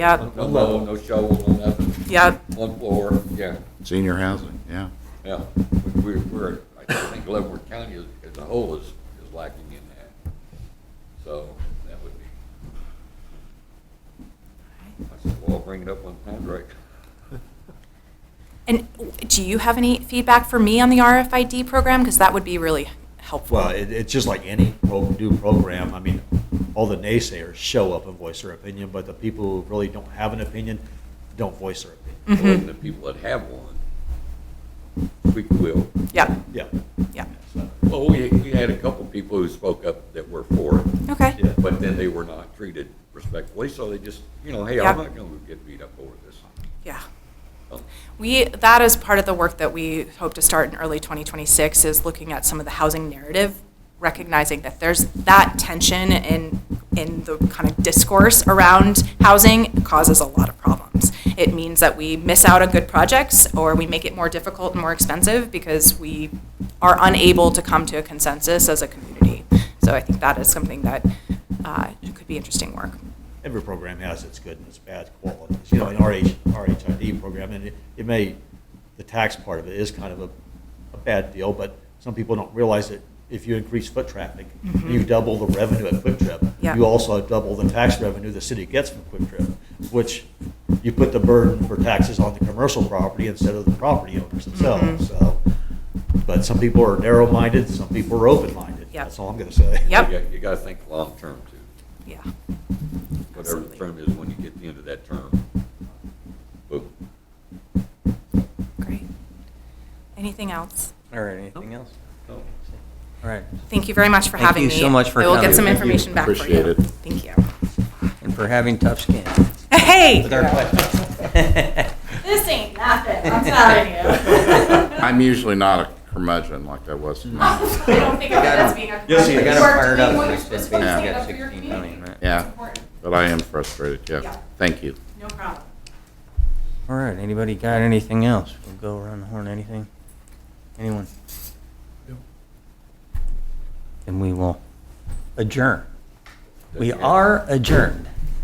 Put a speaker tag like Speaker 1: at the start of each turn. Speaker 1: Yep,
Speaker 2: No mow, no shovel, no nothing,
Speaker 1: yep,
Speaker 2: one floor, yeah,
Speaker 3: Senior housing, yeah.
Speaker 2: yeah. We- we- We're, I think Leavenworth County as as a whole is, is lacking in that. So that would be. I said, well, I'll bring it up on Patrick.
Speaker 1: and do you have any feedback for me on the RFID program? Because that would be really helpful.
Speaker 4: Well, it, it's just like any pro- new program. I mean, all the naysayers show up and voice their opinion, but the people who really don't have an opinion don't voice their opinion.
Speaker 2: And the people that have one, we will.
Speaker 1: Yep,
Speaker 4: Yeah.
Speaker 1: yep,
Speaker 2: Well, we, we had a couple people who spoke up that were for it.
Speaker 1: okay,
Speaker 4: Yeah.
Speaker 2: But then they were not treated respectfully, so they just, you know, hey, I'm
Speaker 1: Yeah.
Speaker 2: not gonna get beat up over this.
Speaker 1: yeah.
Speaker 2: So,
Speaker 1: We, that is part of the work that we hope to start in early 2026, is looking at some of the housing narrative, recognizing that there's that tension in, in the kind of discourse around housing causes a lot of problems. It means that we miss out on good projects, or we make it more difficult and more expensive because we are unable to come to a consensus as a community. So I think that is something that uh, could be interesting work.
Speaker 4: Every program has its good and its bad qualities. You know, an RH, RHID program, and it, it may, the tax part of it is kind of a, a bad deal, but some people don't realize that if you increase foot traffic,
Speaker 1: Mhm.
Speaker 4: you double the revenue at Quick Trip.
Speaker 1: Yeah.
Speaker 4: You also double the tax revenue the city gets from Quick Trip, which you put the burden for taxes on the commercial property instead of the property owners
Speaker 1: Mhm.
Speaker 4: themselves, so. But some people are narrow-minded, some people are open-minded.
Speaker 1: Yep.
Speaker 4: That's all I'm gonna say.
Speaker 1: Yep.
Speaker 2: You got- you gotta think long-term too,
Speaker 1: Yeah.
Speaker 2: whatever the
Speaker 1: Absolutely.
Speaker 2: term is when you get to the end of that term. Boom.
Speaker 1: Great. Anything else?
Speaker 5: Or anything else?
Speaker 2: No.
Speaker 5: All right,
Speaker 1: Thank you very much for
Speaker 5: Thank
Speaker 1: having me.
Speaker 5: you so much for
Speaker 1: I will get
Speaker 5: coming.
Speaker 1: some
Speaker 3: Thank you.
Speaker 1: information back for you.
Speaker 3: Appreciate it.
Speaker 1: Thank you.
Speaker 5: and for having tough skin
Speaker 1: Hey!
Speaker 5: with our questions.
Speaker 1: This ain't nothing, I'm telling you.
Speaker 3: I'm usually not a curmudgeon like I was.
Speaker 1: I don't think of it as being a.
Speaker 4: Yes, he
Speaker 5: I
Speaker 4: is.
Speaker 5: got
Speaker 4: We're
Speaker 5: him fired up.
Speaker 1: We're doing what
Speaker 5: when I
Speaker 1: you're
Speaker 5: said
Speaker 1: supposed
Speaker 5: we
Speaker 1: to
Speaker 3: be
Speaker 5: got
Speaker 1: stand up for your
Speaker 5: 16
Speaker 1: community.
Speaker 5: million, right?
Speaker 3: Yeah.
Speaker 1: It's important.
Speaker 3: But I am frustrated,
Speaker 1: Yeah.
Speaker 3: yeah. Thank you.
Speaker 1: No problem.
Speaker 5: All right, anybody got anything else? We'll go around the horn, anything? Anyone? And we will adjourn. We
Speaker 2: That's it.
Speaker 5: are adjourned.